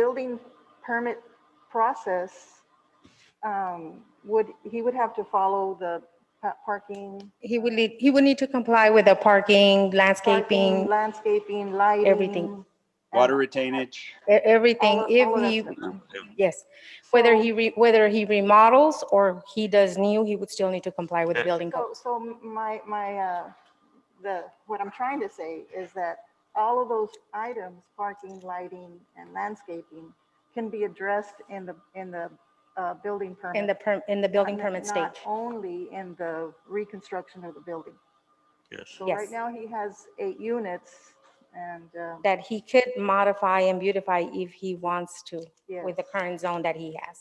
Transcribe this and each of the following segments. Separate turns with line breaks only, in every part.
building permit process, um, would, he would have to follow the pa- parking.
He would need, he would need to comply with the parking,
parking,
landscaping, e-
Landscaping, lighting.
everything.
Water retainage.
e, everything.
All- all of
If
that
he,
stuff.
yes, whether
So-
he, re- whether he remodels or he does new, he would still need to comply with the building code.
So, so my, my, uh, the, what I'm trying to say is that all of those items, parking, lighting, and landscaping, can be addressed in the, in the uh, building permit.
In the, per- in the building
Not-
permit stage.
not Only in the reconstruction of the building.
Yes.
So right
Yes.
now, he has eight units, and, um,
That he could modify and beautify if he wants to with the
yes.
current zone that he has.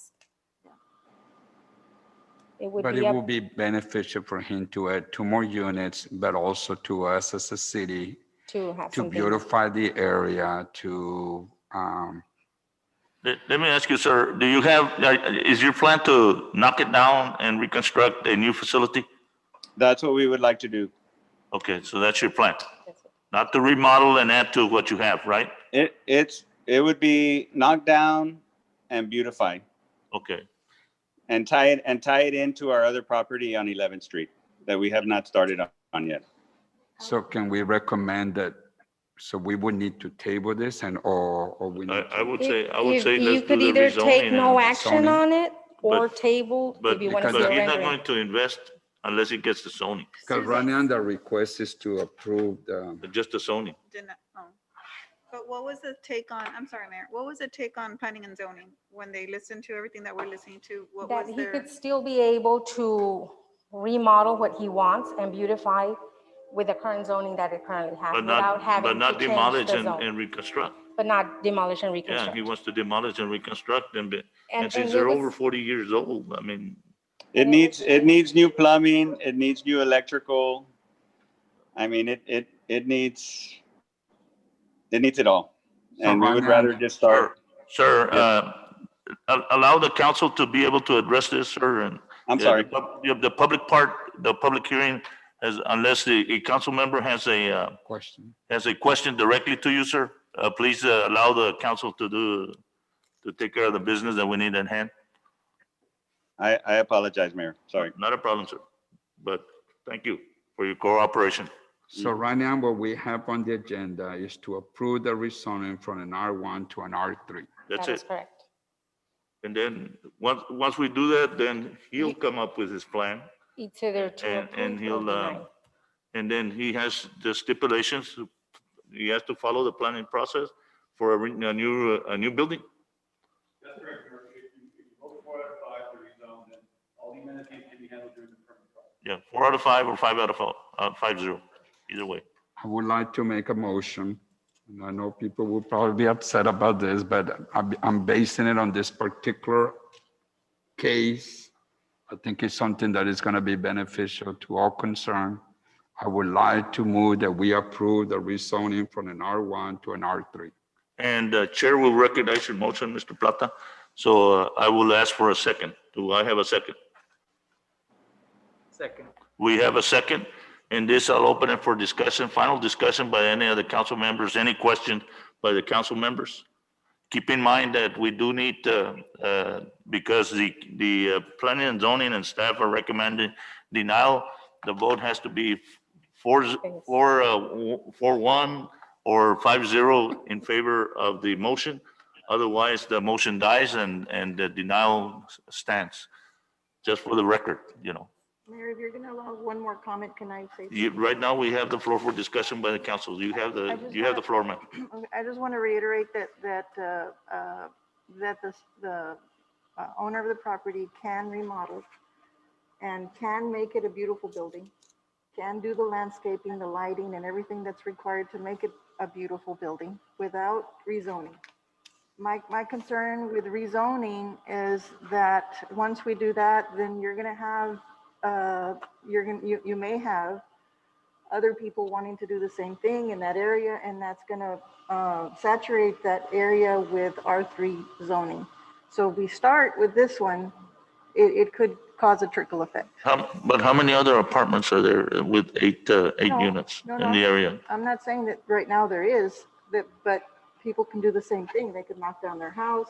It would
But
be
it
up
will be beneficial for him to add two more units, but also to us as a city
to have
to
something.
beautify the area, to, um,
Let, let me ask you, sir, do you have, uh, is your plan to knock it down and reconstruct a new facility?
That's what we would like to do.
Okay, so that's your plan,
That's it.
not to remodel and add to what you have, right?
It, it's, it would be knocked down and beautified
Okay,
and tie it, and tie it into our other property on 11th Street that we have not started on- on yet.
so can we recommend that? So we would need to table this and, or, or we
I,
need
I
to-
would
If-
say, I would
if
say
You
let's do
could
the
either
rezoning.
take no
and-
action
zoning.
on it or
But-
table
But,
if you want to
because
but
still
the-
he's not
render
going
it.
to invest unless he gets the zoning,
Because right now the request is to approve the,
just the zoning.
did not, oh. But what was the take on, I'm sorry, Mayor, what was the take on planning and zoning when they listened to everything that we're listening to? What
That
was
he
their,
could still be able to remodel what he wants and beautify with the current zoning that it currently has
But
without
not,
having
but
to
not
change
demolish
the
and,
zone.
and reconstruct.
But not demolish and
Yeah,
reconstruct.
he wants to demolish and reconstruct and, be-
And-
and since
and
they're
it was-
over forty years old, I mean,
It
And it
needs,
would-
it needs new plumbing, it needs new electrical. I mean, it, it, it needs, it needs it all.
So
And we
right
would
now-
rather just start,
sir, uh, al- allow the council to be able to address this, sir, and
I'm
Yeah,
sorry,
the pub- yeah, The public part, the public hearing, has, unless the, a council member has a, uh,
question.
has a question directly to you, sir, uh, please uh, allow the council to do, to take care of the business that we need at hand.
I, I apologize, Mayor, sorry.
Not a problem, sir. But thank you for your cooperation.
So
Mm.
right now what we have on the agenda is to approve the rezoning from an R1 to an R3.
That's
That is
it.
correct.
And then, once, once we do that, then he'll come up with his plan.
It's either to
And,
approve
and
or
he'll, uh,
deny.
and then he has the stipulations, he has to follow the planning process for a, re- a new, uh, a new building.
That's correct, Mayor. If you, if you vote for out of five to rezone, then all the amenities can be handled during the permit process.
Yeah, four out of five or five out of, fo- uh, five zero, either way.
I would like to make a motion. And I know people will probably be upset about this, but I'm, I'm basing it on this particular case. I think it's something that is going to be beneficial to all concerned. I would like to move that we approve the rezoning from an R1 to an R3.
And uh, Chair will recognize your motion, Mr. Plata. So uh, I will ask for a second. Do I have a second?
Second.
We have a second, and this I'll open it for discussion, final discussion by any of the council members, any questions by the council members? Keep in mind that we do need, uh, uh, because the, the uh, planning and zoning and staff are recommending denial, the vote has to be four, z- four, uh, w- four one or five zero in favor of the motion. Otherwise, the motion dies and, and the denial stands, just for the record, you know.
Mayor, if you're going to allow one more comment, can I say?
You,
something?
right now, we have the floor for discussion by the council. You have
I
the,
just
you have the floor, ma'am.
Okay, I just want to reiterate that, that, uh, uh, that the, the uh, owner of the property can remodel and can make it a beautiful building, can do the landscaping, the lighting, and everything that's required to make it a beautiful building without rezoning. My, my concern with rezoning is that once we do that, then you're going to have, uh, you're going, to you, you may have other people wanting to do the same thing in that area, and that's gonna uh, saturate that area with R3 zoning. So if we start with this one, it, it could cause a trickle effect.
How, but how many other apartments are there with eight, uh, eight
No,
units
no,
in the
no.
area?
I'm not saying that right now there is, that, but people can do the same thing. They could knock down their house,